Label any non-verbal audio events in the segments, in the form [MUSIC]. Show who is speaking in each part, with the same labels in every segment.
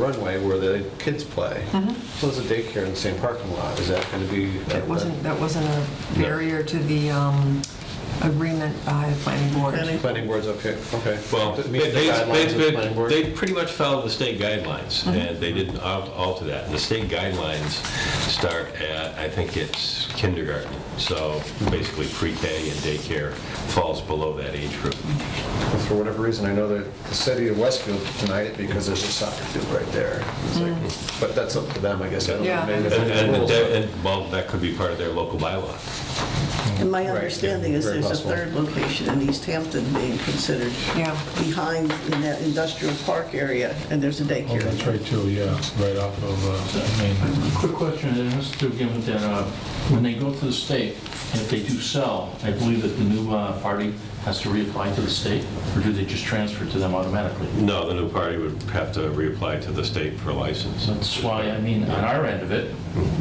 Speaker 1: runway where the kids play. So there's a daycare in the same parking lot. Is that going to be? uh,
Speaker 2: That wasn't, that wasn't a barrier to the um, agreement by the planning board.
Speaker 1: Planning board's okay, okay.
Speaker 3: Well,
Speaker 1: It
Speaker 3: they,
Speaker 1: meets the guidelines of the
Speaker 3: they-
Speaker 1: planning board?
Speaker 3: they pretty much follow the state guidelines, and they didn't al- alter that. The state guidelines start at, I think it's kindergarten, so basically pre-K and daycare falls below that age group.
Speaker 1: But For whatever reason, I know that the city of Westfield denied it because there's a soccer field right there. It's like- But that's up to them, I guess. I don't know.
Speaker 2: Yeah.
Speaker 1: Maybe
Speaker 3: And,
Speaker 1: that's
Speaker 3: and,
Speaker 1: rules,
Speaker 3: the-
Speaker 1: but-
Speaker 3: and, well, that could be part of their local bylaw.
Speaker 4: And my
Speaker 1: yeah,
Speaker 4: understanding is
Speaker 1: very
Speaker 4: there's a
Speaker 1: possible.
Speaker 4: third location in East Hampton being considered
Speaker 2: Yeah.
Speaker 4: behind in that industrial park area, and there's a
Speaker 5: Oh,
Speaker 4: daycare.
Speaker 5: that's right too, yeah, right off of, uh,
Speaker 6: Quick question, and it has to do given that, uh, when they go to the state, if they do sell, I believe that the new uh, party has to reapply to the state, or do they just transfer to them automatically?
Speaker 3: No, the new party would have to reapply to the state for a license.
Speaker 6: So that's why, I mean, on our end of it,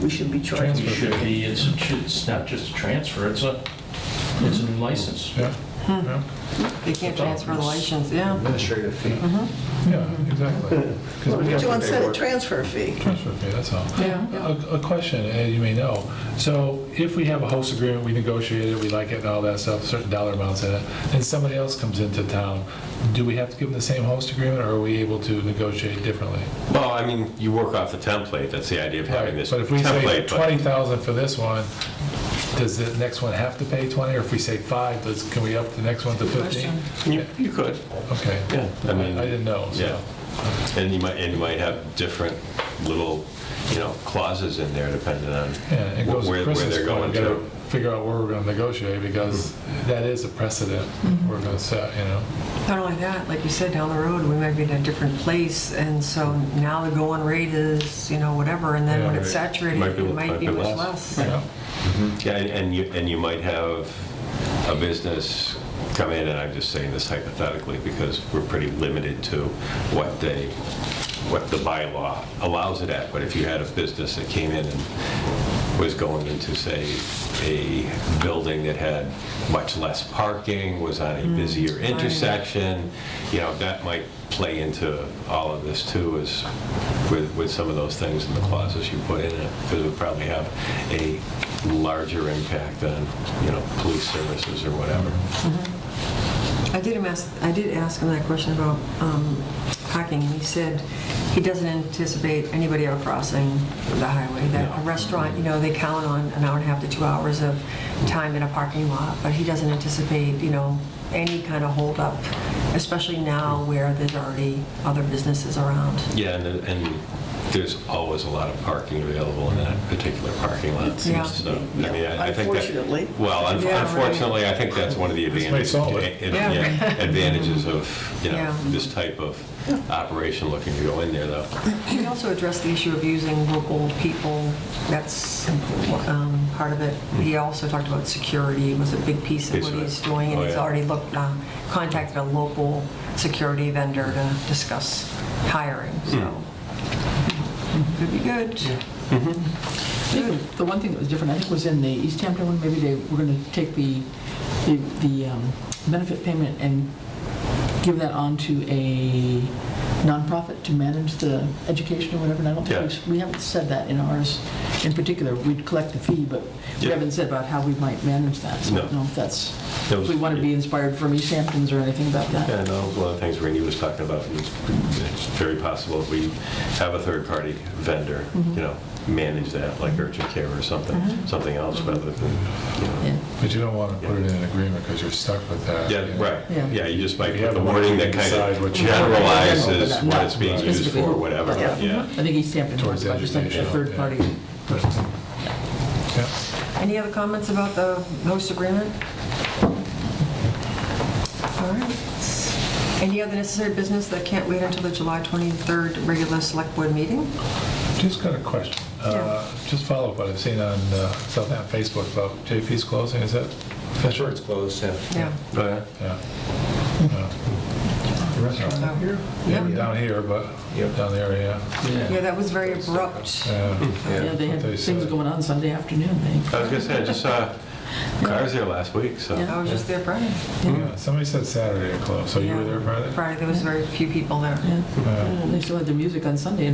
Speaker 4: We should be
Speaker 6: we
Speaker 4: charged.
Speaker 6: should be, it's, it's not just a transfer, it's a, it's a new license.
Speaker 5: Maine. Yeah, yeah.
Speaker 2: They can't transfer the license, yeah.
Speaker 1: Administrative fee.
Speaker 5: Yeah,
Speaker 3: [LAUGHS]
Speaker 5: exactly.
Speaker 4: Well,
Speaker 5: Because we have
Speaker 4: But you
Speaker 5: to
Speaker 4: want to set a transfer fee.
Speaker 5: transfer fee, that's all.
Speaker 2: Yeah.
Speaker 5: A a question, as you may know, so if we have a host agreement, we negotiate it, we like it and all that stuff, certain dollar amounts in it, and somebody else comes into town, do we have to give them the same host agreement, or are we able to negotiate differently?
Speaker 3: Well, I mean, you work off the template, that's the idea of having this
Speaker 5: But if we say
Speaker 3: template. but-
Speaker 5: 20,000 for this one, does the next one have to pay 20? Or if we say five, does, can we up the next one to 15?
Speaker 3: You you could,
Speaker 5: Okay.
Speaker 3: yeah. I mean,
Speaker 5: I didn't know, so.
Speaker 3: Yeah, and you might, and you might have different little, you know, clauses in there depending on
Speaker 5: Yeah, it goes to
Speaker 3: where where
Speaker 5: Chris's
Speaker 3: they're
Speaker 5: point,
Speaker 3: going
Speaker 5: we gotta
Speaker 3: to. Mm-hmm.
Speaker 5: figure out where we're gonna negotiate, because that is a precedent we're gonna set, you know?
Speaker 2: Not only that, like you said, down the road, we might be in a different place, and so now the going rate is, you know, whatever, and then when it's
Speaker 3: Yeah, right.
Speaker 2: saturated,
Speaker 3: Might be-
Speaker 2: it might be
Speaker 3: might be
Speaker 2: much less.
Speaker 3: less.
Speaker 5: You know?
Speaker 3: Yeah, and- and you, and you might have a business come in, and I'm just saying this hypothetically because we're pretty limited to what they, what the bylaw allows it at, but if you had a business that came in and was going into, say, a building that had much less parking, was on a busier intersection, you know, that might play into all of this too, is with, with some of those things in the clauses you put in it, because it would probably have a larger impact on, you know, police services or whatever.
Speaker 2: I did him ask, I did ask him that question about um, parking. He said he doesn't anticipate anybody ever crossing the highway. That a restaurant, you know, they count on an hour and a half to two hours of time in a parking lot, but he doesn't anticipate, you know, any kind of holdup, especially now where there's already other businesses around.
Speaker 3: Yeah, and, and there's always a lot of parking available in that particular parking lot.
Speaker 2: Yeah.
Speaker 3: So, I mean, I I think that-
Speaker 4: Unfortunately.
Speaker 3: Well, un-
Speaker 2: Yeah, right.
Speaker 3: unfortunately, I think that's one of the
Speaker 5: This may
Speaker 3: advantages,
Speaker 5: solve it.
Speaker 3: eh, eh,
Speaker 2: Yeah.
Speaker 3: yeah,
Speaker 2: [LAUGHS]
Speaker 3: advantages of, you
Speaker 2: Yeah.
Speaker 3: know, this type of operation looking to go in there, though.
Speaker 2: He also addressed the issue of using local people. That's um, part of it. He
Speaker 3: Hmm.
Speaker 2: also talked about security was a big piece of
Speaker 3: Piece
Speaker 2: what
Speaker 3: of it.
Speaker 2: he's doing, and
Speaker 3: Oh,
Speaker 2: he's
Speaker 3: yeah.
Speaker 2: already looked, uh, contacted a local security vendor to discuss hiring, so.
Speaker 3: Hmm.
Speaker 2: Could be good.
Speaker 7: I think The one thing that was different, I think, was in the East Hampton one, maybe they were going to take the, the the um, benefit payment and give that on to a nonprofit to manage the education or whatever, and I don't think,
Speaker 3: Yeah.
Speaker 7: we've- we haven't said that in ours in particular. We'd collect the fee, but we
Speaker 3: Yeah.
Speaker 7: haven't said about how we might manage that, so I don't
Speaker 3: No.
Speaker 7: know if that's,
Speaker 3: That
Speaker 7: if
Speaker 3: was-
Speaker 7: we want to be inspired from East Hamptons or anything about that.
Speaker 3: Yeah, that was one of the things Randy was talking about. and It's very possible if we have a third-party vendor,
Speaker 7: Mm-hmm.
Speaker 3: you know, manage that, like urgent care or something, something else rather than, you know.
Speaker 7: Yeah.
Speaker 5: But you don't wanna put it in an agreement, because you're stuck with that.
Speaker 3: Yeah,
Speaker 5: you know?
Speaker 3: right,
Speaker 7: Yeah.
Speaker 3: yeah, you just might
Speaker 5: You
Speaker 3: put
Speaker 5: have
Speaker 3: the
Speaker 5: the
Speaker 3: wording that
Speaker 5: right to
Speaker 3: kind
Speaker 5: decide
Speaker 3: of
Speaker 5: what you-
Speaker 3: generalizes
Speaker 7: General, but
Speaker 3: what
Speaker 7: not
Speaker 3: it's being used
Speaker 7: specifically.
Speaker 3: for, whatever,
Speaker 7: Yeah.
Speaker 3: yeah.
Speaker 7: I think East Hampton
Speaker 5: Towards
Speaker 7: was, but I just think a
Speaker 5: educational, yeah.
Speaker 7: third-party person.
Speaker 5: Yeah.
Speaker 2: Any other comments about the host agreement? All right. Any other necessary business that can't wait until the July 23rd regular select board meeting?
Speaker 5: Just got a question, Uh, just follow up what I've seen on uh, Southampton Facebook about JP's closing, is that
Speaker 1: I'm
Speaker 5: official?
Speaker 1: sure it's closed, yeah.
Speaker 2: Yeah.
Speaker 3: Oh, yeah.
Speaker 5: Yeah. Yeah. The restaurant
Speaker 2: Out here?
Speaker 5: Yeah,
Speaker 2: Yeah.
Speaker 5: down here, but
Speaker 1: Yep.
Speaker 5: down there, yeah.
Speaker 2: Yeah, that was very abrupt.
Speaker 5: Yeah.
Speaker 7: Yeah, they had
Speaker 5: What they
Speaker 7: things
Speaker 5: said.
Speaker 7: going on Sunday afternoon, they,
Speaker 3: I was gonna say, I just saw cars there last week, so.
Speaker 7: Yeah.
Speaker 2: I was just there Friday.
Speaker 3: Mm-hmm.
Speaker 5: Yeah, Somebody said Saturday it closed, so you were there Friday?
Speaker 2: Friday, there was very few people there.
Speaker 7: yeah. They still had the music on Sunday,